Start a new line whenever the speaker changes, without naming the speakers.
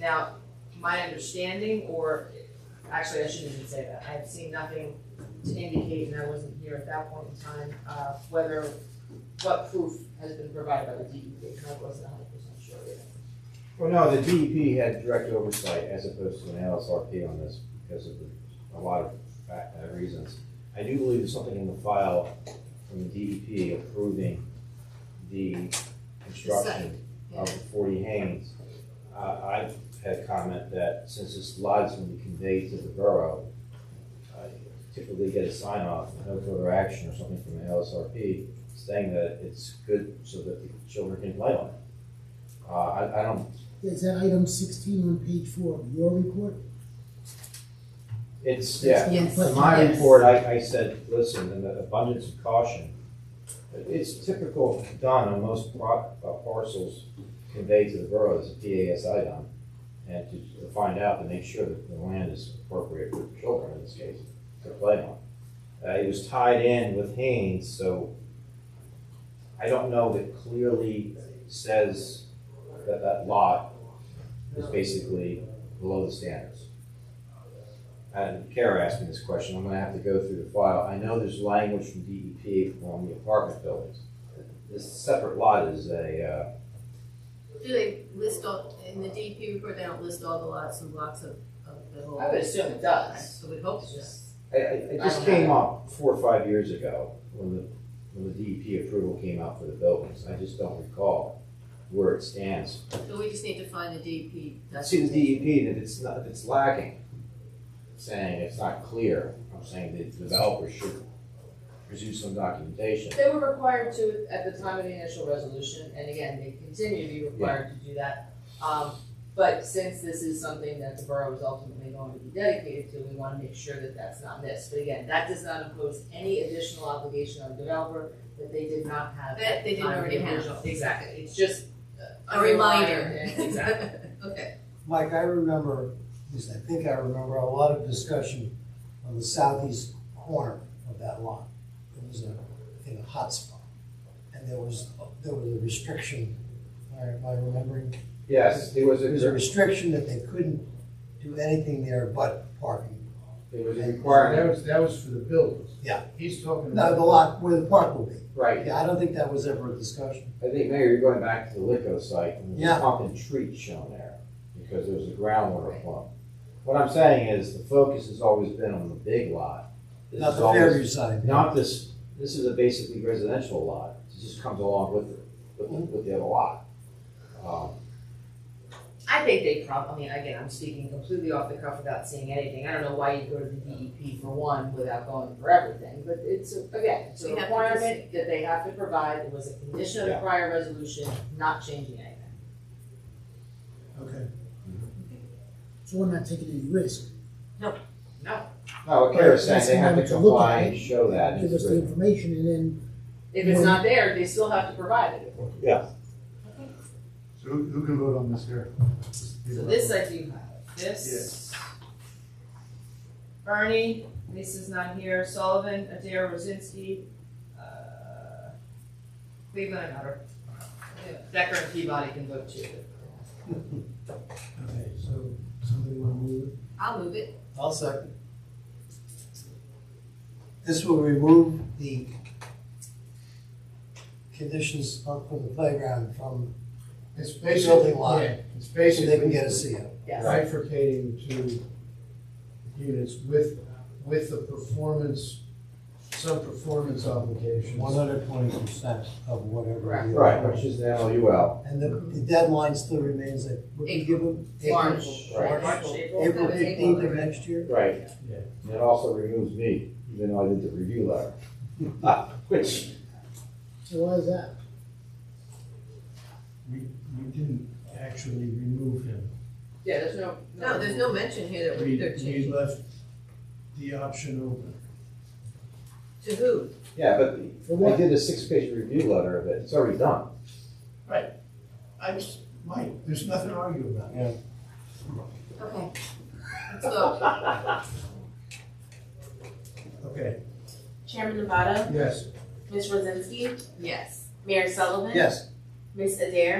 Now, my understanding, or, actually, I shouldn't even say that, I've seen nothing to indicate, and I wasn't here at that point in time, uh, whether, what proof has been provided by the DEP, and I wasn't hundred percent sure either.
Well, no, the DEP had direct oversight as opposed to an LSRP on this because of the- a lot of fac- uh, reasons. I do believe there's something in the file from the DEP approving the construction of the forty Haynes. Uh, I had a comment that since this lot is going to be conveyed to the borough, uh, typically get a sign off, no further action or something from the LSRP saying that it's good so that the children can play on it. Uh, I, I don't
Is that item sixteen on page four of your report?
It's, yeah,
Yes.
in my
Yes.
report, I, I said, listen, in the abundance of caution, it's typical done on most pro- uh, parcels conveyed to the borough as a PASI done. And to to find out to make sure that the land is appropriate for children in this case to play on. Uh, it was tied in with Haynes, so I don't know that clearly says that that lot is basically below the standards and Kara asked me this question, I'm gonna have to go through the file. I know there's language from DEP on the apartment buildings. This separate lot is a, uh,
Do they list all, in the DEP report, they don't list all the lots and blocks of, of the whole?
I would assume it does.
So we hope
It's
so.
just-
uh, I- I, it just came up four or five years ago when the, when the DEP approval came out for the buildings. I just don't recall where it stands.
So we just need to find the DEP.
See the DEP, E that it's not, if it's lacking, saying it's not clear, I'm saying the developer should produce some documentation.
They were required to at the time of the initial resolution, and again, they continue to be required to do that. Um, but since this is something that the borough is ultimately going to be dedicated to, we wanna make sure that that's not missed. But again, that does not impose any additional obligation on the developer that they did not have.
That they didn't
on the
already have.
original. Exactly, it's just. uh,
A reminder.
underlined and- Exactly.
Okay,
Mike, I remember, at least I think I remember, a lot of discussion on the southeast corner of that lot. It was a, I think, a hot spot. And there was, there was a restriction, am I remembering?
Yes, there was a,
There was a restriction that they couldn't do anything there but parking.
there was a
That
requirement,
was, that was for the buildings.
Yeah.
He's talking about.
No, the lot where the park will be.
right,
Yeah, I don't think that was ever a discussion.
I think, Mayor, you're going back to the Lico site, and there's
Yeah.
a pump and treat shown there, because there was a groundwater pump. What I'm saying is, the focus has always been on the big lot. This
Not
is
the
always-
Fairview side.
Not this, this is a basically residential lot, it just comes along with, the- with, the- with the other lot. Um,
I think they probably, I mean, again, I'm speaking completely off the cuff without seeing anything. I don't know why you go to the DEP for one without going for everything, but it's, a- again, it's a
We have to
requirement that they have to provide. It was a condition of the
Yeah.
prior resolution, not changing anything.
Okay.
So we're not taking any risk,
No,
No, what Kara's saying,
That's
they have to
something to look
comply
at.
and show that.
give us the information and then,
if it's not there, they still have to provide it.
So who, who can vote on this here?
So this I do have, this. Bernie, Lisa's not here, Sullivan, Adair, Rosinski, uh, Cleveland and Hutter. Decker and Peabody can vote too.
Okay, so somebody want to move it?
I'll move it.
I'll second. This will remove the conditions from from the playground from,
It's basically,
Building lot.
yeah, it's
so
basically.
they can get a CO.
Yes.
Bifurcating two units with, with the performance, some performance obligations.
One hundred twenty percent of whatever.
Correct.
the-
Right, which is the LUL,
And the the deadline still remains at, what do you give them?
March.
Right.
March, April.
April
April.
fifteenth of next year?
right.
Yeah.
And it also removes me, even though I did the review letter. Which,
so why is that?
We, we didn't actually remove him.
Yeah, there's no.
No, there's no mention here that
We,
we- they're
we
changing.
left the option open.
To who?
Yeah, but I did a six-page review letter of it, it's already done.
I just, Mike, there's nothing to argue about.
Okay. Let's go.
Okay,
Chairman Nevada,
yes.
Ms. Rosinski,
Yes.
Mayor Sullivan.
Yes.
Ms. Adair.